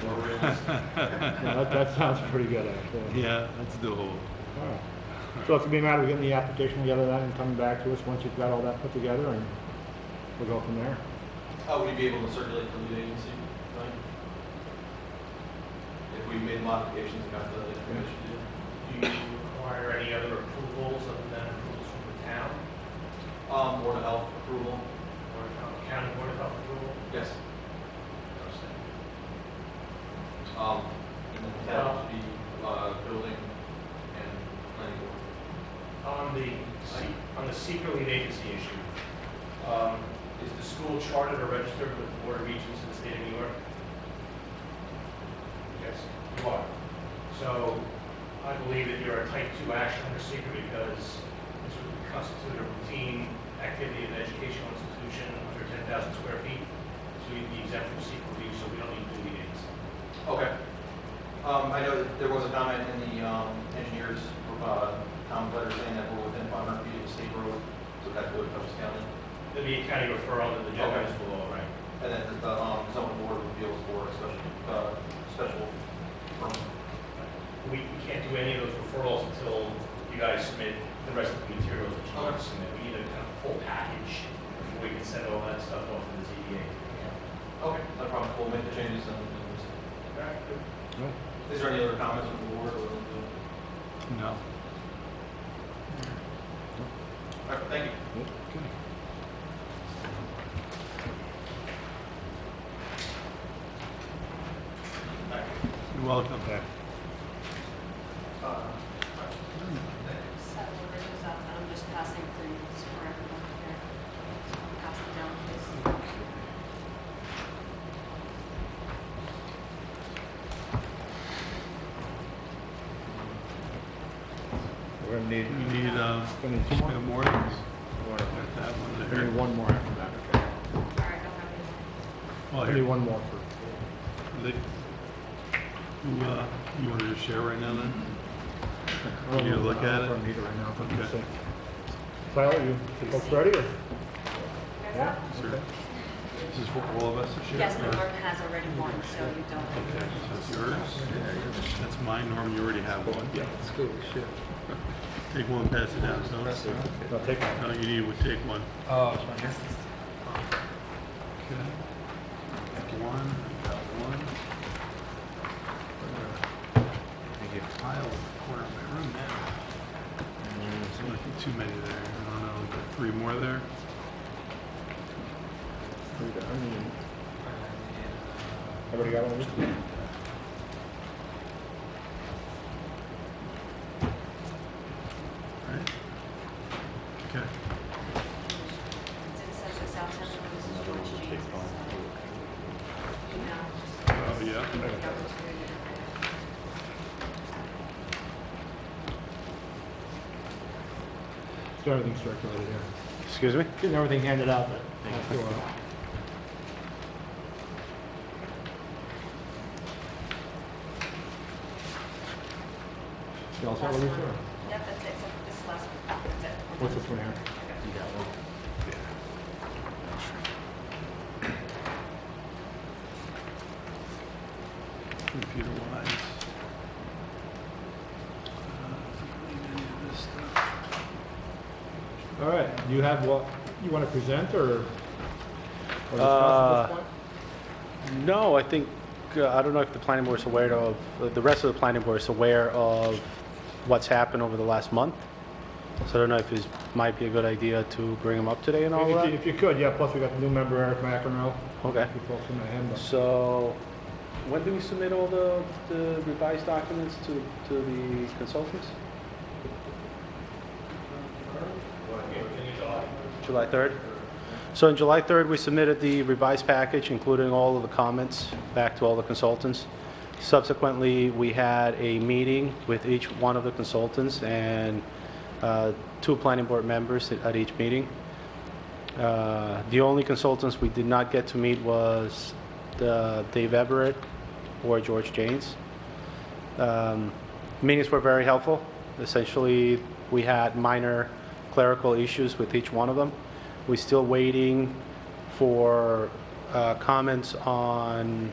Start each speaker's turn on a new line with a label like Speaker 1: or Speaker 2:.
Speaker 1: Four rings.
Speaker 2: Yeah, that, that sounds pretty good, actually.
Speaker 3: Yeah, let's do a whole.
Speaker 2: All right. So it's gonna be a matter of getting the application together then and coming back to us once you've got all that put together and we'll go from there.
Speaker 1: How would you be able to circulate the lead agency, Mike? If we made modifications, got the information to you?
Speaker 4: Do you require any other approvals other than approvals from the town
Speaker 1: Um, Board of Health approval?
Speaker 4: or from the county board of health approval?
Speaker 1: Yes. Um, and then that would be, uh, building and planning board.
Speaker 4: On the, se- on the secret lead agency issue, um, is the school chartered or registered with the Board of Regents in the state of New York? Yes, you are. So I believe that you're a type two action under secret because this would constitute a routine activity of an educational institution under ten thousand square feet. So you'd be exempt from secret review, so we don't need lead agency.
Speaker 1: Okay. Um, I know that there was a comment in the, um, engineers, uh, Tom letter saying that we're within five hundred feet of state road, so that would Dutchess County.
Speaker 4: There'd be a county referral to the general
Speaker 1: Okay.
Speaker 4: school, all right?
Speaker 1: And then the, um, zoning board of appeals for a special, uh, special permit.
Speaker 4: We we can't do any of those referrals until you guys submit the rest of the materials that you want to submit. We need a kind of full package before we can send all that stuff off to the ZBA.
Speaker 1: Okay, no problem, we'll make the changes and, and-
Speaker 2: All right.
Speaker 1: is there any other comments from the board or? All
Speaker 3: No.
Speaker 1: right, thank you.
Speaker 2: Okay.
Speaker 1: Thank you.
Speaker 3: You're welcome.
Speaker 2: Okay.
Speaker 1: Uh,
Speaker 5: So we're just up, and I'm just passing through this for everyone here. So I'll Pass it down, please.
Speaker 2: We're gonna need,
Speaker 3: We need, uh,
Speaker 2: gonna need two more?
Speaker 3: we have more things.
Speaker 2: Or-
Speaker 3: Got that one
Speaker 2: We need
Speaker 3: there.
Speaker 2: one more after that, okay?
Speaker 5: All right, I'll have it.
Speaker 2: We
Speaker 3: Well,
Speaker 2: need
Speaker 3: Oh, here,
Speaker 2: one more for,
Speaker 3: Lee. Who, uh, you wanted to share right now then?
Speaker 2: I don't
Speaker 3: You
Speaker 2: know,
Speaker 3: look
Speaker 2: I
Speaker 3: at it?
Speaker 2: don't need it right now, if I'm
Speaker 3: Okay.
Speaker 2: sick. Tyler, you, you folks ready or?
Speaker 5: You guys
Speaker 2: Yeah?
Speaker 5: up?
Speaker 3: Sure. This is for all of us to share?
Speaker 5: Yes,
Speaker 3: or-
Speaker 5: but Norm has already won, so you don't.
Speaker 3: Okay, so it's yours. That's mine, Norm, you already have one. Yeah, it's good, Take one, pass it down, so,
Speaker 2: No, take one.
Speaker 3: no, you need, to take one.
Speaker 6: Oh, it's one here.
Speaker 3: Okay. One, I got one.
Speaker 6: Thank you.
Speaker 3: Pile in the corner of my room now.
Speaker 6: And
Speaker 3: There's not too many there. I don't know, like three more there.
Speaker 2: Here we go. I mean,
Speaker 6: then-
Speaker 2: Everybody got one? of these?
Speaker 3: Right? Okay.
Speaker 5: It says it's out to everyone, this is George James. so, You know, just.
Speaker 3: Oh, yeah.
Speaker 5: give the opportunity.
Speaker 2: So everything's circulated here.
Speaker 3: Excuse me?
Speaker 2: Getting everything handed out, but. You all set with
Speaker 5: Last
Speaker 2: these,
Speaker 5: one.
Speaker 2: or?
Speaker 5: Yep, that's it, so this last one, that's it.
Speaker 2: What's this one here?
Speaker 3: Computer wise. Uh,
Speaker 2: All right, you have what, you want to present or? or discuss at this
Speaker 7: Uh,
Speaker 2: point?
Speaker 7: No, I think, uh, I don't know if the planning board is aware of, uh, the rest of the planning board is aware of what's happened over the last month. So I don't know if it might be a good idea to bring them up today and all
Speaker 2: If you-
Speaker 7: that.
Speaker 2: if you could, yeah, plus we got the new member Eric McEnroe.
Speaker 7: Okay.
Speaker 2: If you folks in the him, but-
Speaker 7: So when do we submit all the the revised documents to to the consultants? July 3rd? So on July 3rd, we submitted the revised package, including all of the comments, back to all the consultants. Subsequently, we had a meeting with each one of the consultants and uh, two planning board members at each meeting. Uh, The only consultants we did not get to meet was the Dave Everett or George Janes. Um, Meetings were very helpful. Essentially, we had minor clerical issues with each one of them. We're still waiting for uh, comments on